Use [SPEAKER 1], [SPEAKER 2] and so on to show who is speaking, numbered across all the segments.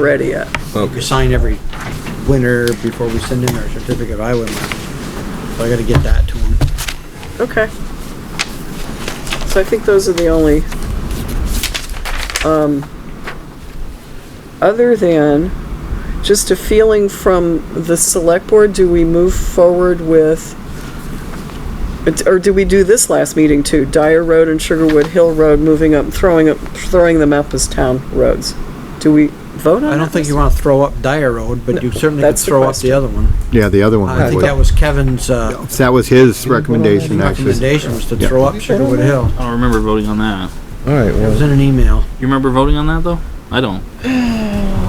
[SPEAKER 1] ready yet.
[SPEAKER 2] We sign every winter before we send in our certificate of highway mark. So I gotta get that to them.
[SPEAKER 1] Okay. So I think those are the only, um, other than just a feeling from the select board, do we move forward with, it's- or do we do this last meeting too? Dyer Road and Sugarwood Hill Road moving up, throwing up, throwing them up as town roads? Do we vote on that?
[SPEAKER 2] I don't think you wanna throw up Dyer Road, but you certainly could
[SPEAKER 1] that's the
[SPEAKER 2] throw up the other one.
[SPEAKER 3] Yeah, the other
[SPEAKER 2] I
[SPEAKER 3] one
[SPEAKER 2] think that
[SPEAKER 3] was,
[SPEAKER 2] was Kevin's, uh,
[SPEAKER 3] that was his recommendation, actually.
[SPEAKER 2] recommendation was to throw up Sugarwood Hill.
[SPEAKER 4] I don't remember voting on that.
[SPEAKER 5] All right,
[SPEAKER 2] It was
[SPEAKER 5] well,
[SPEAKER 2] in an email.
[SPEAKER 4] You remember voting on that though? I don't.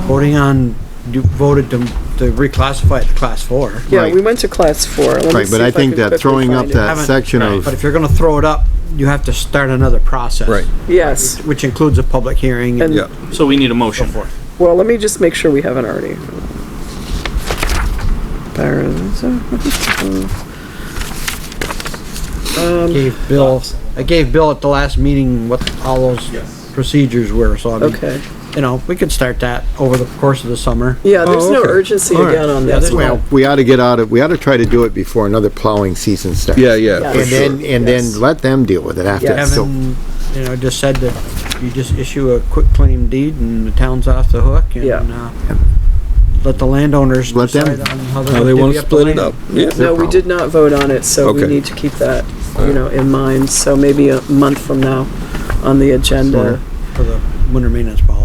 [SPEAKER 2] Voting on, you voted to, to reclassify it to class four.
[SPEAKER 1] Yeah,
[SPEAKER 3] right.
[SPEAKER 1] we went to class four. Let me
[SPEAKER 3] Right, but
[SPEAKER 1] see
[SPEAKER 3] I
[SPEAKER 1] if
[SPEAKER 3] think
[SPEAKER 1] can
[SPEAKER 3] that
[SPEAKER 1] quickly
[SPEAKER 3] throwing up
[SPEAKER 1] find it.
[SPEAKER 3] that
[SPEAKER 2] Haven't-
[SPEAKER 3] section
[SPEAKER 4] right,
[SPEAKER 3] of,
[SPEAKER 2] But if you're gonna throw it up, you have to start another process.
[SPEAKER 5] Right.
[SPEAKER 1] Yes.
[SPEAKER 2] Which includes a public hearing
[SPEAKER 1] And-
[SPEAKER 2] and
[SPEAKER 5] yeah,
[SPEAKER 4] So we need a
[SPEAKER 2] so
[SPEAKER 4] motion.
[SPEAKER 2] forth.
[SPEAKER 1] Well, let me just make sure we haven't already. Barons, um,
[SPEAKER 2] Gave Bill, I gave Bill at the last meeting what all those procedures were, so I mean,
[SPEAKER 1] okay.
[SPEAKER 2] you know, we could start that over the course of the summer.
[SPEAKER 1] Yeah, there's
[SPEAKER 5] Oh,
[SPEAKER 1] no
[SPEAKER 5] okay.
[SPEAKER 1] urgency
[SPEAKER 5] All right.
[SPEAKER 1] again on
[SPEAKER 2] Yeah,
[SPEAKER 1] this.
[SPEAKER 2] there's no-
[SPEAKER 1] one.
[SPEAKER 3] well, we ought to get out of, we ought to try to do it before another plowing season starts.
[SPEAKER 5] yeah, yeah, for
[SPEAKER 3] And
[SPEAKER 5] sure.
[SPEAKER 3] then, and
[SPEAKER 1] Yes.
[SPEAKER 3] then let them deal with it after.
[SPEAKER 1] Yes.
[SPEAKER 3] So-
[SPEAKER 2] Kevin, you know, just said that you just issue a quick claim deed and the town's off the hook
[SPEAKER 1] Yeah.
[SPEAKER 2] and, uh, let the landowners
[SPEAKER 3] Let them-
[SPEAKER 2] decide on how they're
[SPEAKER 5] Now they
[SPEAKER 2] gonna
[SPEAKER 5] wanna
[SPEAKER 2] divvy up the
[SPEAKER 5] split it
[SPEAKER 2] land.
[SPEAKER 5] up, yeah.
[SPEAKER 1] No, we did not vote on it, so we
[SPEAKER 5] Okay.
[SPEAKER 1] need to keep that, you know, in mind. So maybe a month from now on the agenda.
[SPEAKER 2] For the winter maintenance policy.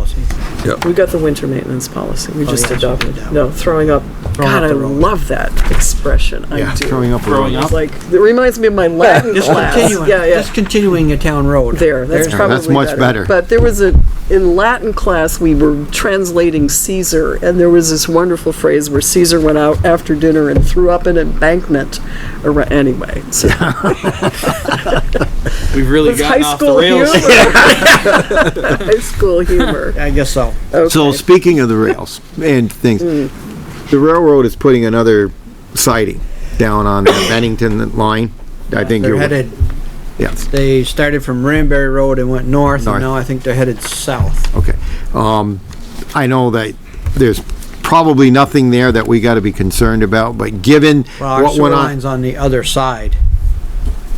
[SPEAKER 1] We got the winter maintenance policy. We
[SPEAKER 2] Oh,
[SPEAKER 1] just
[SPEAKER 2] yeah, so
[SPEAKER 1] adopted.
[SPEAKER 2] we did.
[SPEAKER 1] No, throwing up.
[SPEAKER 2] Throwing up
[SPEAKER 1] God, I
[SPEAKER 2] the road.
[SPEAKER 1] love that expression. I
[SPEAKER 3] Yeah,
[SPEAKER 1] do.
[SPEAKER 3] throwing up. a
[SPEAKER 4] Throwing
[SPEAKER 3] road.
[SPEAKER 4] up.
[SPEAKER 1] It's like, it reminds me of my Latin class.
[SPEAKER 2] Discontinuing,
[SPEAKER 1] Yeah, yeah.
[SPEAKER 2] discontinuing a town road.
[SPEAKER 1] There, that's
[SPEAKER 2] There's-
[SPEAKER 3] Yeah,
[SPEAKER 1] probably
[SPEAKER 3] that's much better.
[SPEAKER 1] But there was a, in Latin class, we were translating Caesar, and there was this wonderful phrase where Caesar went out after dinner and threw up an embankment. ar- Anyway, so
[SPEAKER 4] We've really
[SPEAKER 1] it's high
[SPEAKER 4] gotten off the
[SPEAKER 1] school humor.
[SPEAKER 4] rails.
[SPEAKER 1] High school humor.
[SPEAKER 2] I guess so.
[SPEAKER 3] So
[SPEAKER 1] Okay.
[SPEAKER 3] speaking of the rails and things, the railroad is putting another siding down on the Bennington line. I think
[SPEAKER 2] They're
[SPEAKER 3] you're.
[SPEAKER 2] headed,
[SPEAKER 3] Yes,
[SPEAKER 2] they started from Ranberry Road and went north and
[SPEAKER 3] North.
[SPEAKER 2] now I think they're headed south.
[SPEAKER 3] okay. Um, I know that there's probably nothing there that we gotta be concerned about, but given
[SPEAKER 2] Well, our
[SPEAKER 3] what
[SPEAKER 2] sewer
[SPEAKER 3] went on.
[SPEAKER 2] line's on the other side.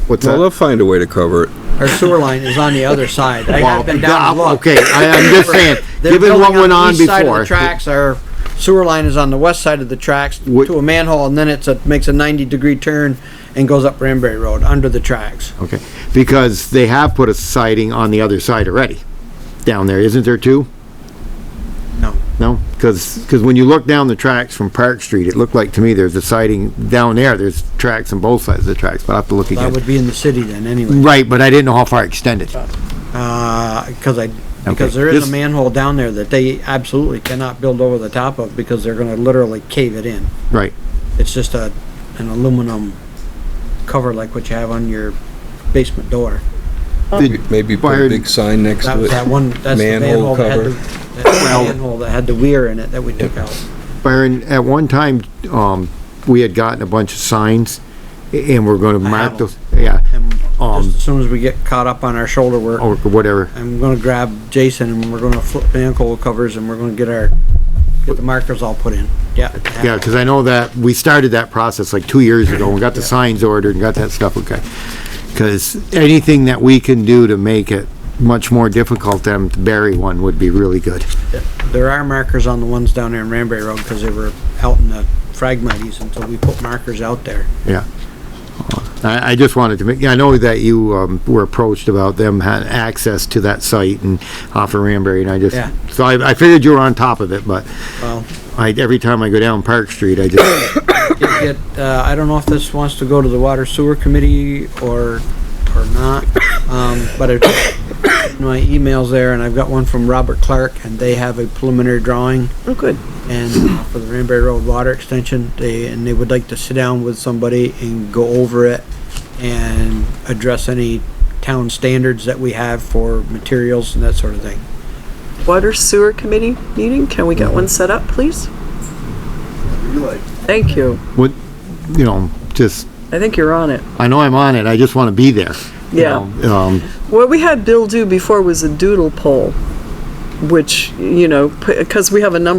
[SPEAKER 3] What's
[SPEAKER 5] Well, they'll
[SPEAKER 3] that?
[SPEAKER 5] find a way to cover it.
[SPEAKER 2] Our sewer line is on the other side. I
[SPEAKER 3] Well,
[SPEAKER 2] have been down and
[SPEAKER 3] yeah,
[SPEAKER 2] looked.
[SPEAKER 3] Okay, I, I'm just saying,
[SPEAKER 2] They're
[SPEAKER 3] given what
[SPEAKER 2] building
[SPEAKER 3] went on
[SPEAKER 2] the east side of the
[SPEAKER 3] before.
[SPEAKER 2] Tracks, our sewer line is on the west side of the tracks
[SPEAKER 3] Would-
[SPEAKER 2] to a manhole and then it's a, makes a ninety degree turn and goes up Ranberry Road under the tracks.
[SPEAKER 3] Okay, because they have put a siding on the other side already, down there, isn't there two?
[SPEAKER 2] No.
[SPEAKER 3] No, because, because when you look down the tracks from Park Street, it looked like to me there's a siding down there, there's tracks on both sides of the tracks, but I'll have to look
[SPEAKER 2] That
[SPEAKER 3] again.
[SPEAKER 2] would be in the city then anyway.
[SPEAKER 3] Right, but I didn't know how far it extended.
[SPEAKER 2] Uh, cause I, because there
[SPEAKER 3] This-
[SPEAKER 2] is a manhole down there that they absolutely cannot build over the top of because they're gonna literally cave it in.
[SPEAKER 3] Right,
[SPEAKER 2] It's just a, an aluminum cover like what you have on your basement door.
[SPEAKER 5] Maybe- Maybe put a
[SPEAKER 3] Wired-
[SPEAKER 5] big sign next
[SPEAKER 2] That
[SPEAKER 5] to
[SPEAKER 2] was that
[SPEAKER 5] it.
[SPEAKER 2] one, that's the
[SPEAKER 5] Manhole
[SPEAKER 2] manhole that had
[SPEAKER 5] cover.
[SPEAKER 2] the, that's the manhole that had the weir in it that we took out.
[SPEAKER 3] Byron, at one time, um, we had gotten a bunch of signs, a- and we're gonna
[SPEAKER 2] I
[SPEAKER 3] mark
[SPEAKER 2] have
[SPEAKER 3] those, yeah,
[SPEAKER 2] And
[SPEAKER 3] Um, oh.
[SPEAKER 2] just as soon as we get caught up on our shoulder work,
[SPEAKER 3] or whatever.
[SPEAKER 2] I'm gonna grab Jason and we're gonna flip manhole covers and we're gonna get our, get the markers all put in. Yeah.
[SPEAKER 3] Yeah, because I know that, we started that process like two years ago, and got the signs ordered and got that stuff, okay. Because anything that we can do to make it much more difficult than to bury one would be really good.
[SPEAKER 2] There are markers on the ones down there in Ranberry Road because they were out in the fragmites and so we put markers out there.
[SPEAKER 3] Yeah. Uh, I, I just wanted to make, I know that you, um, were approached about them had access to that site and off of Ranberry, and I just,
[SPEAKER 2] Yeah.
[SPEAKER 3] so I, I figured you were on top of it, but
[SPEAKER 2] Well,
[SPEAKER 3] I, every time I go down Park Street, I just,
[SPEAKER 2] it, it, uh, I don't know if this wants to go to the water sewer committee or, or not, um, but it, my email's there and I've got one from Robert Clark and they have a preliminary drawing
[SPEAKER 1] Oh, good.
[SPEAKER 2] and uh, for the Ranberry Road water extension, they, and they would like to sit down with somebody and go over it and address any town standards that we have for materials and that sort of thing.
[SPEAKER 1] Water Sewer Committee meeting, can we get one set up, please? Thank you.
[SPEAKER 3] what, you know, just,
[SPEAKER 1] I think you're on it.
[SPEAKER 3] I know I'm on it, I just want to be there. you
[SPEAKER 1] Yeah.
[SPEAKER 3] know, Um,
[SPEAKER 1] What we had Bill do before was a doodle poll, which, you know, because we have a number